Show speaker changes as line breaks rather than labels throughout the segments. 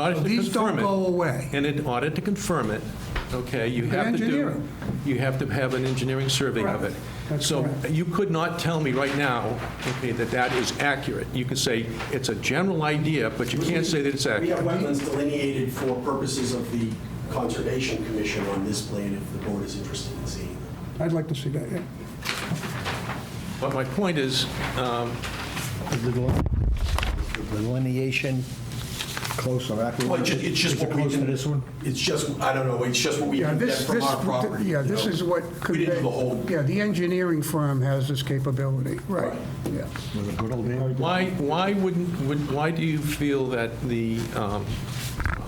audit to
These don't
confirm it.
go away.
And in audit to confirm it, okay, you have to
engineer
do,
them.
you have to have an engineering survey of it.
Correct. That's
So
correct.
you could not tell me right now, okay, that that is accurate. You can say it's a general idea, but you can't say that it's
We have
accurate.
wetlands delineated for purposes of the Conservation Commission on this plan, if the board is interested in seeing them.
I'd like to see that, yeah.
But my point is, um,
The del- the delineation closer, accurate.
Well, it's ju- it's just
Is it
what we
closer to
didn't-
this one?
It's just, I don't know, it's just what we
Yeah,
can get
this,
from
this,
our property.
yeah,
you
this
know.
is what.
We didn't do
convey-
the whole,
Yeah, the engineering firm has this capability, right, yeah.
With a good old man?
Why, why wouldn't, would- why do you feel that the, um,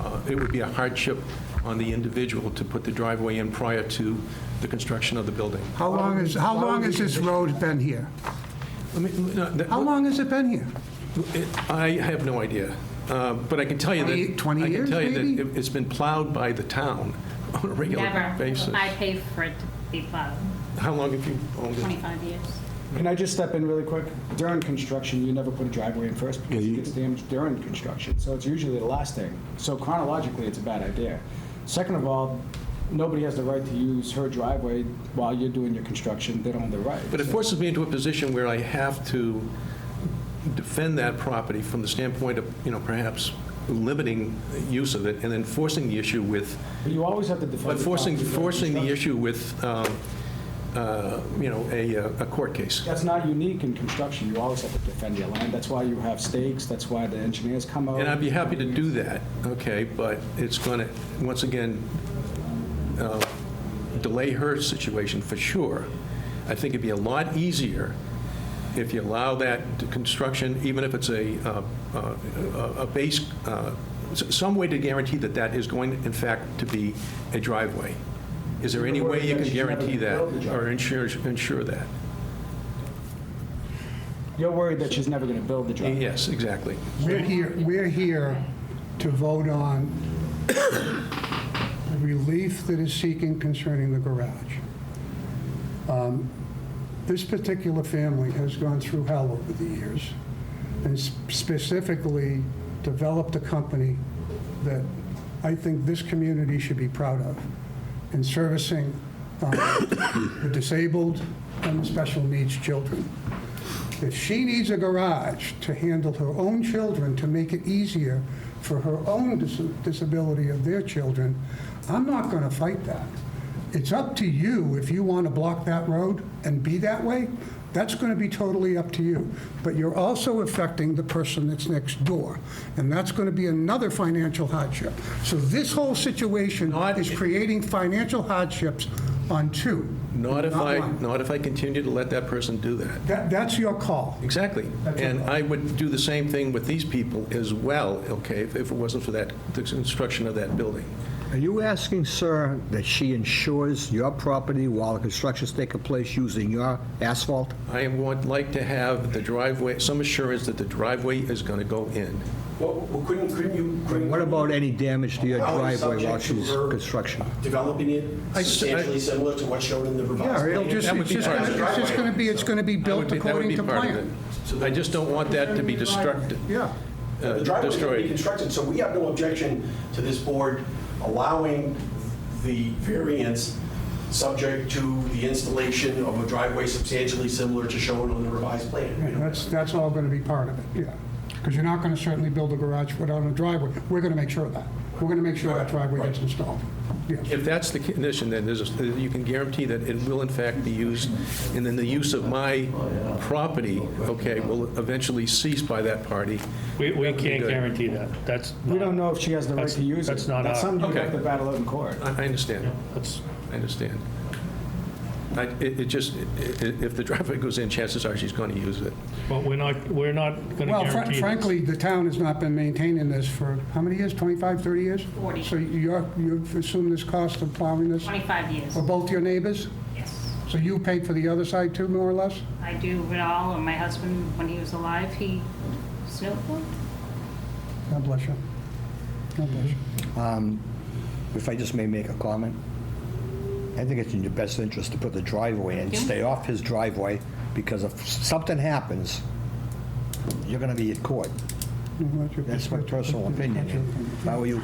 uh, it would be a hardship on the individual to put the driveway in prior to the construction of the building?
How long is, how long has this road been here?
I mean, no, that-
How long has it been here?
I have no idea, Uh, but I can tell you that.
20 years,
I can tell you
maybe?
that it- it's been plowed by the town on a regular
Never.
basis.
I pay for it to be plowed,
How long have you owned it?
25 years.
Can I just step in really quick? During construction, you never put a driveway in first because it gets damaged during construction, so it's usually the last thing. So chronologically, it's a bad idea. Second of all, nobody has the right to use her driveway while you're doing your construction, they don't have the right.
But it forces me into a position where I have to defend that property from the standpoint of, you know, perhaps limiting use of it and then forcing the issue with,
But You always have to defend.
but
the
forcing,
property during
forcing the
construction.
issue with, um, uh, you know, a uh, a court case.
That's not unique in construction, you always have to defend your land, that's why you have stakes, that's why the engineers come out.
And I'd be happy to do that, okay, but it's going to, once again, uh, delay her situation for sure. I think it'd be a lot easier if you allow that to construction, even if it's a, uh, uh, a- a base, uh, s- some way to guarantee that that is going, in fact, to be a driveway. Is there any way you can guarantee that or ensure, ensure that?
You're worried that she's never gonna build the driveway.
Yes, exactly.
We're here, we're here to vote on the relief that is seeking concerning the garage. Um, This particular family has gone through hell over the years, and s- specifically developed a company that I think this community should be proud of in servicing um, the disabled and the special needs children. If she needs a garage to handle her own children, to make it easier for her own dis- disability of their children, I'm not going to fight that. It's up to you if you want to block that road and be that way. That's going to be totally up to you. But you're also affecting the person that's next door, and that's going to be another financial hardship. So this whole situation
Not-
is creating financial hardships on two.
Not if I,
one.
not if I continue to let that person do that.
That, that's your call.
Exactly. And I would do the same thing with these people as well, okay, if if it wasn't for that, the construction of that building.
Are you asking, sir, that she insures your property while the construction's taking place using your asphalt?
I would like to have the driveway, some assurance that the driveway is going to go in.
Well, well, couldn't, couldn't you? couldn't-
What about any damage to your
How is
driveway while
subject to
she's
her
construction?
Developing
I
it
s- I-
substantially similar to what's shown in the revised
Yeah,
plan.
it'll just,
That would
it's
be
just
part of
gonna-
it.
it's just gonna be, it's gonna be
That would
built
be- that would
according
be
to
part of
plan.
it. I just don't want that to be destructed,
Yeah,
uh,
The driveway is going to be
destroyed.
constructed, so we have no objection to this board allowing the variance subject to the installation of a driveway substantially similar to shown on the revised plan.
Yeah,
We don't-
that's, that's all gonna be part of it, yeah. Because you're not gonna certainly build a garage without a driveway. We're gonna make sure of that. We're gonna make sure that driveway gets installed. Yes,
If that's the condition, then there's, a- you can guarantee that it will in fact be used, and then the use of my property, okay, will eventually cease by that party.
We, we can't
good.
guarantee that. That's.
We
not-
don't know if she has the right
That's-
to use it.
that's not
That's
our-
something you
Okay.
have to battle out in court.
I I understand.
That's,
I understand. I- It it just, i- i- if the driveway goes in, chances are she's going to use it.
but we're not, we're not going to
Well, fr-
guarantee. this.
frankly, the town has not been maintaining this for, how many years, 25, 30 years?
40.
So you're, you've assumed this cost of plowing this
25 years,
for both your neighbors?
yes.
So you paid for the other side too, more or less?
I do it all, and my husband, when he was alive, he snowboarded.
God bless you. God bless you.
If I just may make a comment, I think it's in your best interest to put the driveway in,
Yeah.
stay off his driveway, because if something happens, you're gonna be at court.
Not your
That's my
perspective.
personal opinion. If I were you,